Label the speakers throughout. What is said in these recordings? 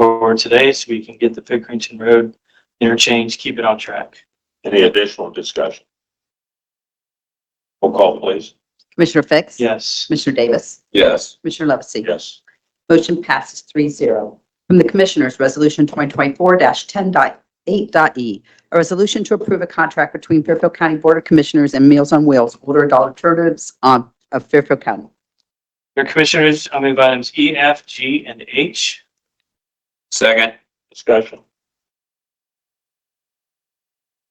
Speaker 1: board today so we can get the Pickerington Road interchange, keep it on track.
Speaker 2: Any additional discussion? Roll call, please.
Speaker 3: Commissioner Fix?
Speaker 1: Yes.
Speaker 3: Commissioner Davis?
Speaker 2: Yes.
Speaker 3: Commissioner Levesey?
Speaker 2: Yes.
Speaker 3: Motion passes three zero. From the Commissioners, Resolution 2024-10.8.e, E. a resolution to approve a contract between Fairfield County Board of Commissioners and Meals on Wheels, Order of Dollar Alternatives on- of Fairfield County.
Speaker 1: Your commissioners, I move items E, F, G, and H.
Speaker 2: Second. Discussion.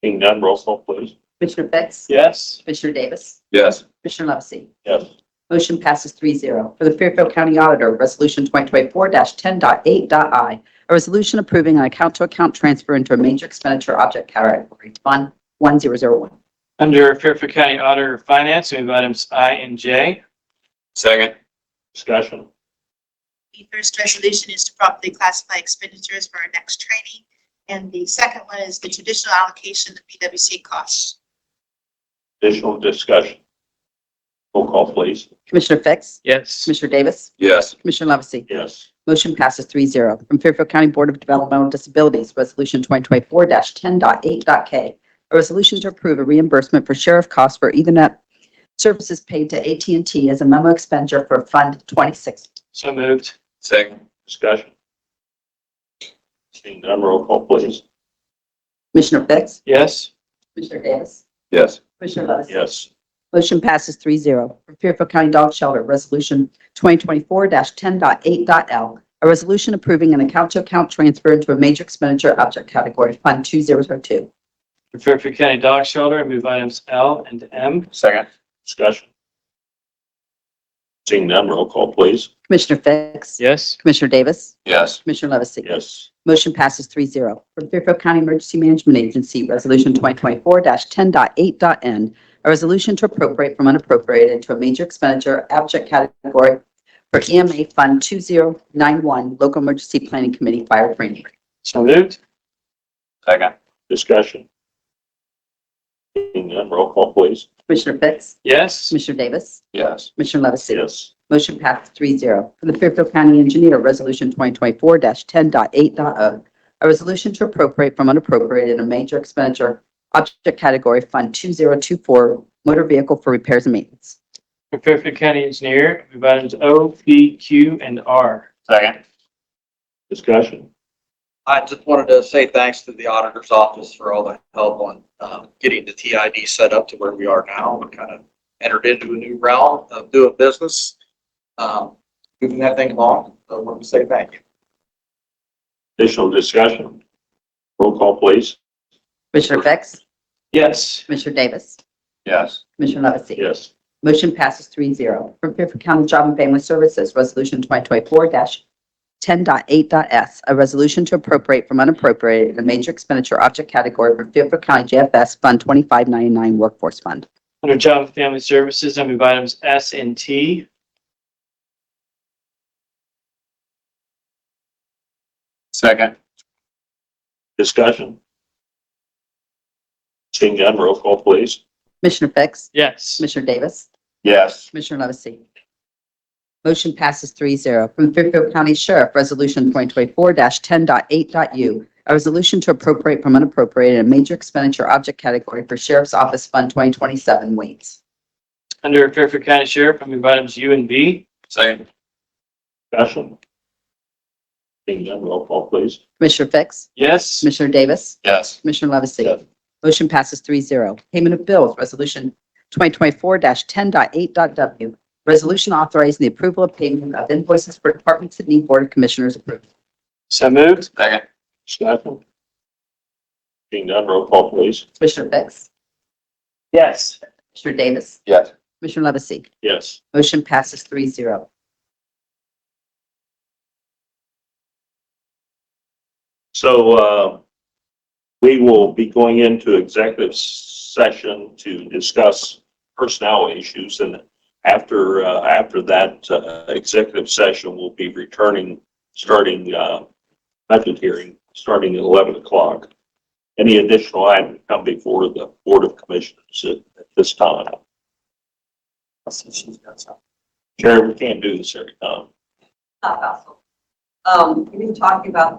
Speaker 2: Seeing none, roll call, please.
Speaker 3: Commissioner Fix?
Speaker 1: Yes.
Speaker 3: Commissioner Davis?
Speaker 2: Yes.
Speaker 3: Commissioner Levesey?
Speaker 2: Yes.
Speaker 3: Motion passes three zero. For the Fairfield County Auditor, Resolution 2024-10.8.i, a resolution approving an account-to-account transfer into a major expenditure object category, Fund 1001.
Speaker 1: Under Fairfield County Auditor of Finance, I move items I and J.
Speaker 2: Second. Discussion.
Speaker 4: The first resolution is to properly classify expenditures for our next training. And the second one is the traditional allocation of PWC costs.
Speaker 2: Additional discussion. Roll call, please.
Speaker 3: Commissioner Fix?
Speaker 1: Yes.
Speaker 3: Commissioner Davis?
Speaker 2: Yes.
Speaker 3: Commissioner Levesey?
Speaker 2: Yes.
Speaker 3: Motion passes three zero. From Fairfield County Board of Developmental Disabilities, Resolution 2024-10.8.k, a resolution to approve a reimbursement for sheriff costs for Ethernet services paid to at and t as a memo expenditure for Fund 26.
Speaker 1: So moved.
Speaker 2: Second. Discussion. Seeing none, roll call, please.
Speaker 3: Commissioner Fix?
Speaker 1: Yes.
Speaker 3: Commissioner Davis?
Speaker 2: Yes.
Speaker 3: Commissioner Levesey?
Speaker 2: Yes.
Speaker 3: Motion passes three zero. For Fairfield County Dog Shelter, Resolution 2024-10.8.l, a resolution approving an account-to-account transfer into a major expenditure object category, Fund 2002.
Speaker 1: For Fairfield County Dog Shelter, I move items L and M.
Speaker 2: Second. Discussion. Seeing none, roll call, please.
Speaker 3: Commissioner Fix?
Speaker 1: Yes.
Speaker 3: Commissioner Davis?
Speaker 2: Yes.
Speaker 3: Commissioner Levesey?
Speaker 2: Yes.
Speaker 3: Motion passes three zero. For Fairfield County Emergency Management Agency, Resolution 2024-10.8.n, a resolution to appropriate from unappropriated into a major expenditure object category for EMA Fund 2091, Local Emergency Planning Committee Fire Training.
Speaker 1: So moved.
Speaker 2: Second. Discussion. Seeing none, roll call, please.
Speaker 3: Commissioner Fix?
Speaker 1: Yes.
Speaker 3: Commissioner Davis?
Speaker 2: Yes.
Speaker 3: Commissioner Levesey?
Speaker 2: Yes.
Speaker 3: Motion passed three zero. For the Fairfield County Engineer, Resolution 2024-10.8.o, a resolution to appropriate from unappropriated in a major expenditure object category Fund 2024 Motor Vehicle for Repairs and Maintenance.
Speaker 1: For Fairfield County Engineer, I move items O, P, Q, and R.
Speaker 2: Second. Discussion.
Speaker 5: I just wanted to say thanks to the auditor's office for all the help on um, getting the TID set up to where we are now. We kind of entered into a new realm of doing business, um, moving that thing along. So I wanted to say thank you.
Speaker 2: Additional discussion. Roll call, please.
Speaker 3: Commissioner Fix?
Speaker 1: Yes.
Speaker 3: Commissioner Davis?
Speaker 2: Yes.
Speaker 3: Commissioner Levesey?
Speaker 2: Yes.
Speaker 3: Motion passes three zero. From Fairfield County Job and Family Services, Resolution 2024-10.8.s, a resolution to appropriate from unappropriated in a major expenditure object category for Fairfield County JFS Fund 2599 Workforce Fund.
Speaker 1: Under Job and Family Services, I move items S and T.
Speaker 2: Second. Discussion. Seeing none, roll call, please.
Speaker 3: Commissioner Fix?
Speaker 1: Yes.
Speaker 3: Commissioner Davis?
Speaker 2: Yes.
Speaker 3: Commissioner Levesey? Motion passes three zero. From Fairfield County Sheriff, Resolution 2024-10.8.u, a resolution to appropriate from unappropriated in a major expenditure object category for Sheriff's Office Fund 2027 Waits.
Speaker 1: Under Fairfield County Sheriff, I move items U and V.
Speaker 2: Second. Discussion. Seeing none, roll call, please.
Speaker 3: Commissioner Fix?
Speaker 1: Yes.
Speaker 3: Commissioner Davis?
Speaker 2: Yes.
Speaker 3: Commissioner
Speaker 2: Yes.
Speaker 3: Levesey? Motion passes three zero. Payment of bills, Resolution 2024-10.8.w. Resolution authorizing the approval of payment of invoices for departments that need Board of Commissioners approval.
Speaker 1: So moved.
Speaker 2: Second. Discussion. Seeing none, roll call, please.
Speaker 3: Commissioner Fix?
Speaker 1: Yes.
Speaker 3: Commissioner Davis?
Speaker 2: Yes.
Speaker 3: Commissioner Levesey?
Speaker 2: Yes.
Speaker 3: Motion passes three zero.
Speaker 2: So uh, we will be going into executive session to discuss personnel issues. And after, uh, after that uh, executive session, we'll be returning, starting uh, budget hearing, starting at 11 o'clock. Any additional item come before the Board of Commissioners at at this time? Sharon, we can't do this every time.
Speaker 3: Um, we've been talking about